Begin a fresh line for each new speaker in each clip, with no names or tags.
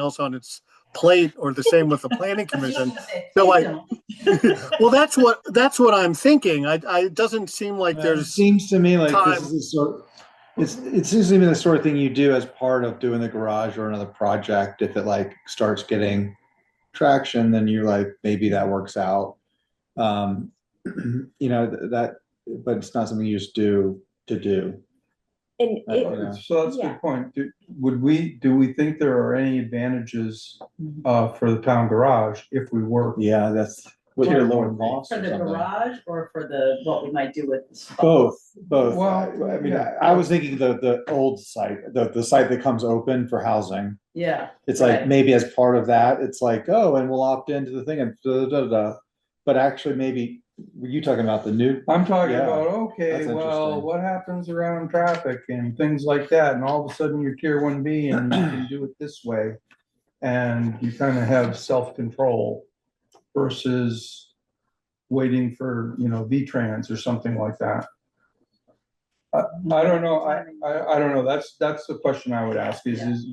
else on its plate or the same with the planning commission. So I, well, that's what, that's what I'm thinking. I, I, it doesn't seem like
Well, It
there's,
seems to me like this
time.
is the sort, it's, it seems to me the sort of thing you do as part of doing the garage or another project. If it like starts getting traction, then you're like, maybe that works out. Um, you know, th- that, but it's not something you just do to do.
And
Uh,
I
it,
don't know.
So that's a
Yeah.
good point. Do- Would we, do we think there are any advantages uh, for the town garage if we were?
Yeah, that's with your lower cost
For
or
the
something.
garage or for the, what we might do with the spa?
Both, both.
Well,
I I mean,
yeah.
I I was thinking the, the old site, the, the site that comes open for housing.
Yeah,
It's like
Right.
maybe as part of that, it's like, oh, and we'll opt into the thing and da da da. da. But actually, maybe were you talking about the new?
I'm talking
Yeah,
about, okay,
that's
well,
interesting.
what happens around traffic and things like that, and all of a sudden you're tier one B and you can do it this way. And you kind of have self-control versus waiting for, you know, V-Trans or something like that. I, I don't know, I, I, I don't know, that's, that's the question I would ask is, is,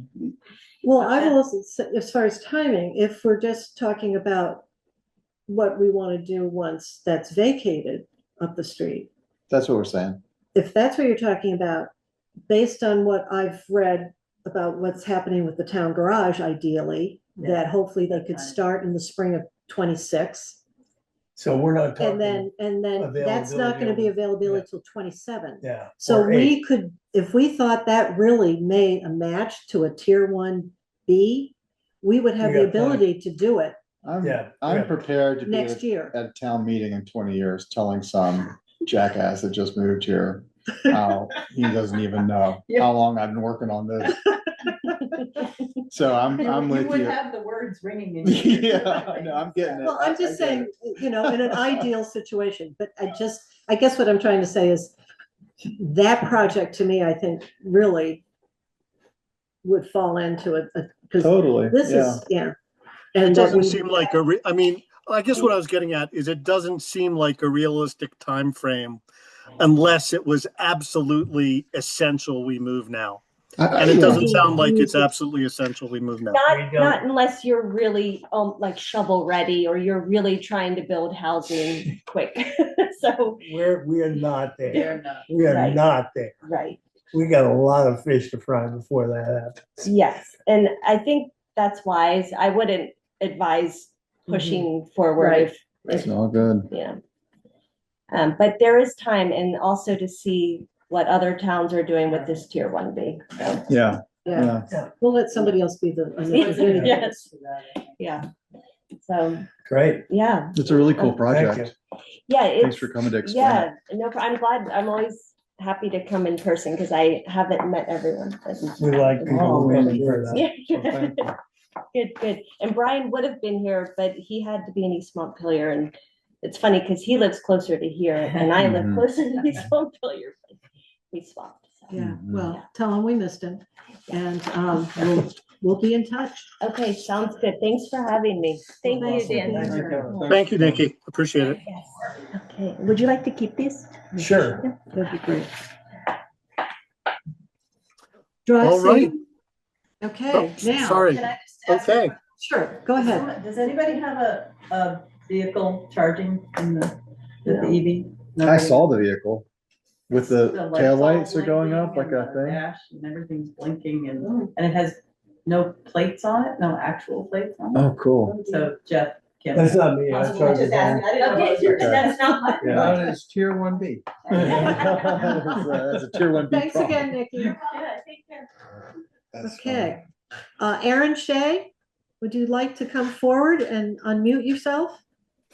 Well, I will also say, as far as timing, if we're just talking about what we want to do once that's vacated up the street,
That's what we're saying.
if that's what you're talking about, based on what I've read about what's happening with the town garage ideally,
Yeah.
that hopefully they could
Got it.
start in the spring of twenty-six.
So we're not
And
talking,
then, and then that's not gonna be availability
yeah.
till twenty-seven.
yeah.
So
or eight.
we could, if we thought that really made a match to a tier one B, we would have
We
the
got plenty.
ability to do it
I'm
Yeah,
I'm
yeah.
prepared to be
next
at
year.
a town meeting in 20 years telling some jackass that just moved here how he doesn't even know
Yeah.
how long I've been working on this. So I'm I'm
You
with
would
you.
have the words ringing in your ears.
Yeah, no, I'm getting it.
Well,
I-
I'm
I
just
get it.
saying, you know, in an ideal situation, but I just, I guess what I'm trying to say is that project to me, I think, really would fall into it, because
Totally.
this
Oh, yeah.
is, yeah.
it
And what
doesn't
we-
seem like a re, I mean, I guess what I was getting at is it doesn't seem like a realistic time frame, unless it was absolutely essential we move now.
I-
And it
yeah.
doesn't sound like it's absolutely essential we move now.
Not,
We don't-
not unless you're really, um, like shovel ready or you're really trying to build housing quick. So,
We're, we are not there.
They're not.
We are
Right.
not there.
right,
We got a lot of fish to fry before that happens.
yes. And I think that's wise. I wouldn't advise
Mm-hmm.
pushing forward
Right.
if,
It's all good.
yeah. Um, but there is time and also to see what other towns are doing with this tier one B. So,
Yeah.
Yeah,
yeah.
we'll let somebody else be the.
Yeah.
Yes.
yeah. So,
Great.
yeah,
It's a really cool
Thank
project.
yeah.
Thanks
It's,
for coming to explain. it.
yeah, no, I'm glad. I'm always happy to come in person because I haven't met everyone.
We like people who come in for that.
Yeah,
so thank you.
good, good. And Brian would have been here, but he had to be in East Montpelier, and it's funny because he lives closer to here, and I live
Mhm.
closer to East Montpelier. but We swapped. so.
Yeah,
Mhm.
well, tell them we missed him and, um, we'll, we'll be in touch.
Okay, sounds good. Thanks for having me. Thank you,
Awesome.
Thank you, Kevin.
Dan.
Thanks.
Thank you, Nikki. Appreciate it.
Yes. Okay, would you like to keep these?
Sure.
That'd be great. Drive
All right. Oh,
safe. Okay, now.
Sorry.
Can I just ask a
Okay.
Sure, go ahead.
Someone- Does anybody have a, a vehicle charging in the, with the EV?
I
Nobody?
saw the vehicle with the
The lights all
taillights are going up like
blinking
a
and the
thing.
dash And everything's blinking and, and it has no plates on it, no actual plates on
Oh, cool.
it. So Jeff can.
That's not me. I
Possible,
tried
I
to
just asked, I didn't know if you were-
Okay.
That's not my.
Yeah.
That is tier one B.
That's a that's uh, a tier one B.
Thanks again, Nikki. Okay. Uh, Aaron Shea, would you like to come forward and unmute yourself?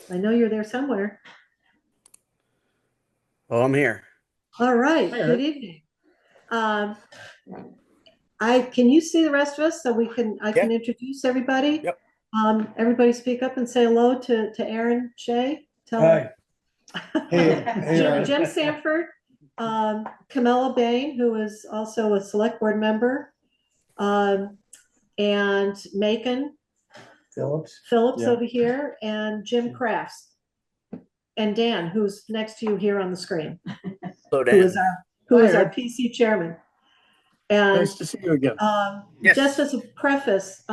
I know you're there somewhere.
Oh, I'm here.
All right,
Hi, Aaron.
good evening. Um, I, can you see the rest of us so we can, I can introduce everybody?
Yep.
Um, everybody speak up and say hello to, to Aaron Shea. Tell him-
Hi.
Hey, hey,
Jim
Ryan.
Jim Sanford, um, Camilla Bain, who is also a select board member, um, and Macon
Phillips.
Phillips
Yeah.
over here, and Jim Crafts. And Dan, who's next to you here on the screen,
Hello,
who
Dan.
is our, who is our PC chairman. And,
Nice to see you again.
um,
Yes.
just as a preface,